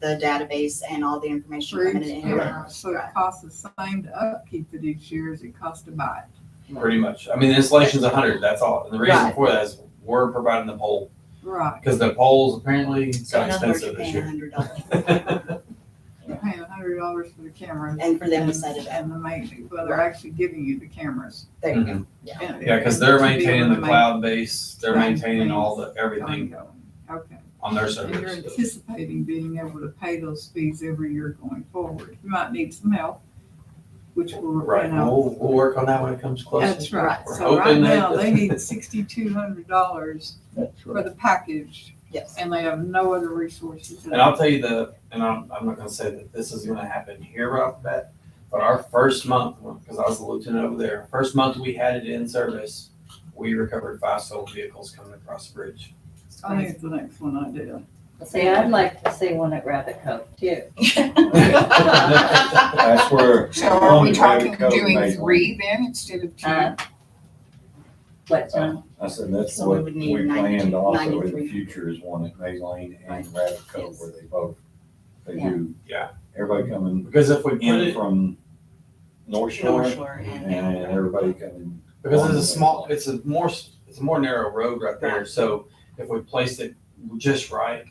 the database and all the information for coming each in. year. So it Right. costs the same to upkeep it each year as it costs to buy it. pretty much. I mean, the installation's a hundred, that's all. And the reason Right. for that is we're providing the pole, Right, because the poles apparently So got in other words, you're expensive this paying a year. hundred dollars. you're paying a hundred dollars for the cameras. And for them to set it up. And the maintenance, well, they're actually giving you the cameras. There you go. and- Mhm. Yeah, because they're to be able maintaining to the ma- cloud base, they're Right. maintaining all the, everything ongoing. Okay, on their and you're servers. anticipating being able to pay those fees every year going forward. You might need some help, which will, you Right, know. we'll, we'll work on that when it comes closer. That's right. We're So right hoping that- now, they need sixty-two hundred dollars for the package Mm-hmm. Yes. and they have no other resources. And I'll tell you the, and I'm, I'm not gonna say that this is gonna happen here right off the bat, but our first month, because I was the lieutenant over there, first month we had it in service, we recovered five stolen vehicles coming across the bridge. I think it's the next one I did. See, I'd like to see one at Rabbit Cove too. That's where. So are Long we talking Cove doing made one. three then instead of two? Uh, What, John? I said, that's So we what would need we planned 92 also in 93. the future is one at May Lane and Right. Rabbit Cove Yes. where they both, they Yeah. do. Yeah. Everybody coming Because if we put in it, from North North Shore Shore and and everybody coming. because it's a small, it's a more, s- it's a more narrow road right there, so if we placed it just right,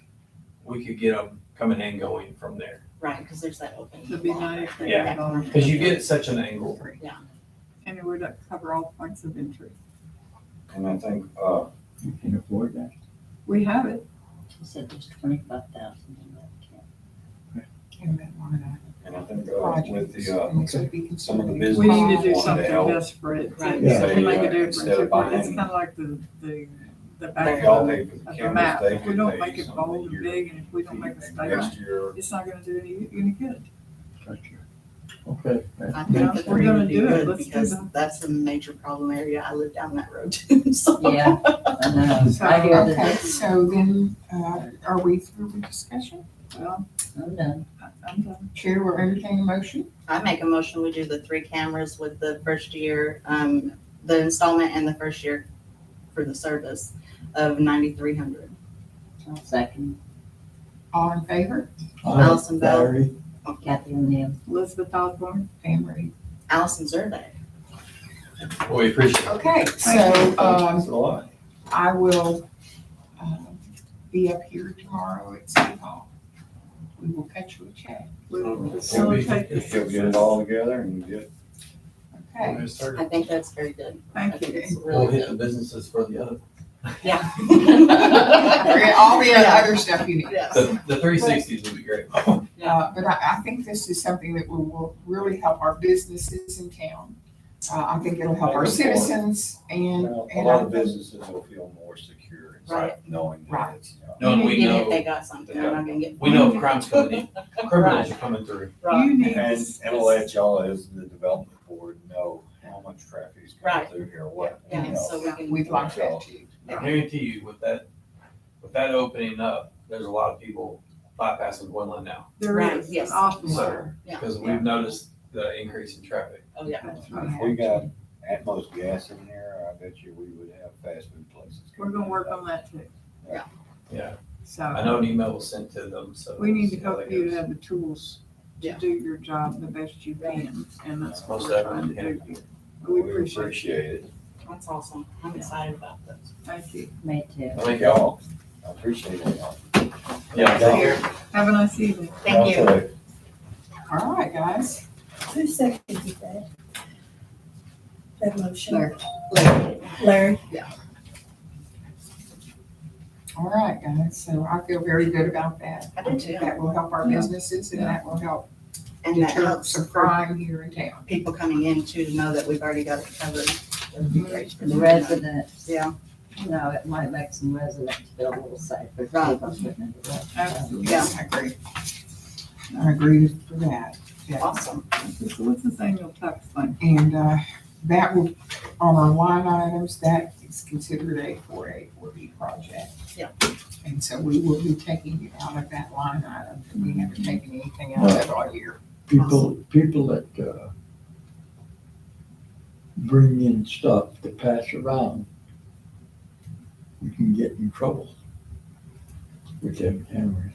we could get them coming and going from there. right, because there's that open. It'd be lot nice there. to have it on. Because you get such an Uh, angle. And it would cover all points of entry. And I think, uh, You can afford that. We have it. He said there's twenty-five thousand in that camp. And that one and I think of the uh, with projects, the, and uh, it could be some of the considered. We need to do One something help. desperate to Right. to make Say, a uh, difference. instead of It's kind buying- of like the, the, the they back all of pay for the of the cameras, map. they If we don't could make pay it some of bold the and year. big and if we don't make a And statement, Next year, it's not gonna do any, any good. Gotcha. Okay. I think the If we're three gonna would be do it, good let's do because them. that's a major problem area. I live down that road too, so. Yeah, I know. I hear that Okay, it's, so then, uh, are we through with discussion? Well, I'm done. I- I'm done. Chair, we're entertaining a motion? I make a motion, we do the three cameras with the first year, um, the installment and the first year for the service of ninety-three hundred. I'll second. All in favor? Um, Oh, Allison Bell. Battery. Kathy O'Neill. Elizabeth Osborne, Pam Reed. Allison Zerbe. We appreciate it. Okay, so, um, It's a lot. I will, um, be up here tomorrow at City Hall. We will cut you a check, we will It'll be- facilitate this. She'll get it all together and get okay? We'll start- I think that's very good. I Thank think you. it's We'll really hit the good. businesses for the other. Yeah. Forget All the other stuff you need. Yes. The, the three sixties would be great. Uh, but I, I think this is something that will, will really help our businesses in town. Uh, I think it'll help our citizens and, Well, A and lot I of think, businesses will feel more secure Right. inside knowing that Right. it's, you know, No, and we Even if know- they got something, they're not gonna get. We know crime's coming in, criminals are coming through. Right. You need And this. it'll let y'all as the development board know how much traffic is coming Right. through here, what, you Yeah, so know. we can. we'd like that too. I guarantee you with that, with that opening up, there's a lot of people bypassing one lane now. There Right, is an yes. awful lot. So, Yeah. because we've noticed the increase in traffic. Oh, yeah. That's right. If we got at most gas in here, I bet you we would have fast food places. We're gonna coming work in. on that too. Yeah. Yeah. I So know an email was sent to them, so. we need to see how help that you to goes. have the tools to Yeah. do your job the best you can, and that's what Most we're trying to definitely, do here. We appreciate it. Appreciate it. That's awesome. I'm excited about this. Thank you. Me too. Thank y'all. I appreciate it. y'all. Yeah. Y'all- Have a nice evening. Thank you. y'all take All right, guys. Who seconded that? That motion? There. Larry? All right, guys. So I feel very good about that. I do too. That will help our Yeah. businesses and that will help And that deter helps some for crime here in town. people coming in too, to know that we've already got it covered. That would be great for The them. residents, Yeah, you know, it might make some residents feel a little safer. Right. Absolutely. Yeah. I agree. I agree with that. Yeah. awesome. So what's this annual tax thing? And uh, that will, on our line items, that is considered a four A, four B project. Yeah. And so we will be taking it out of that line item, and we haven't taken anything out of it all year. People, people that, uh, bring in stuff to pass around, we can get in trouble with them cameras.